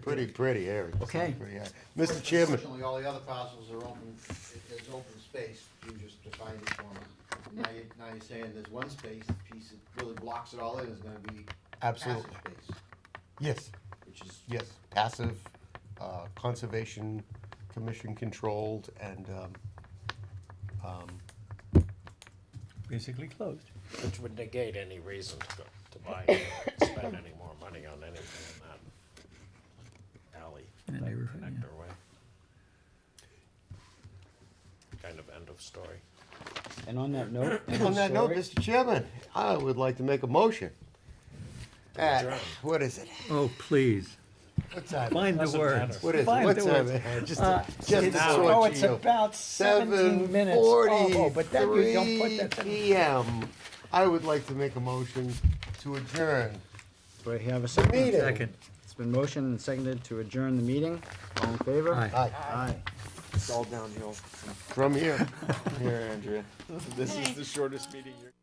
Pretty, pretty area. It's Okay. pretty area. Mr. Chairman, Unfortunately, all the other parcels are open, there's open space, you just defined it for them. Now you're, now you're saying there's one space, piece that really blocks it all in, is gonna be passive Absolutely. space, yes, which is. yes, passive, uh, conservation commission controlled and, um, basically closed. Which would negate any reason to go, to buy, or spend any more money on anything in that alley in the neighborhood, yeah. connector way. Kind of end of story. And on that note, on that note, Mr. Chairman, I would like to make a motion. At, Adjourn. what is it? Oh, please, What time? find the Doesn't words. What is it? Find What the time? words. it? Just, Uh, to- just to now. sort Oh, it's you. about Seven seventeen minutes. Oh, forty-three but that, you don't put that. PM. I would like to make a motion to adjourn. Do I have a second? Meeting. Second, It's been motioned and seconded to adjourn the meeting. All in favor? aye. Aye. Aye. It's all downhill. From here. Here, Andrea. This is the shortest meeting you're.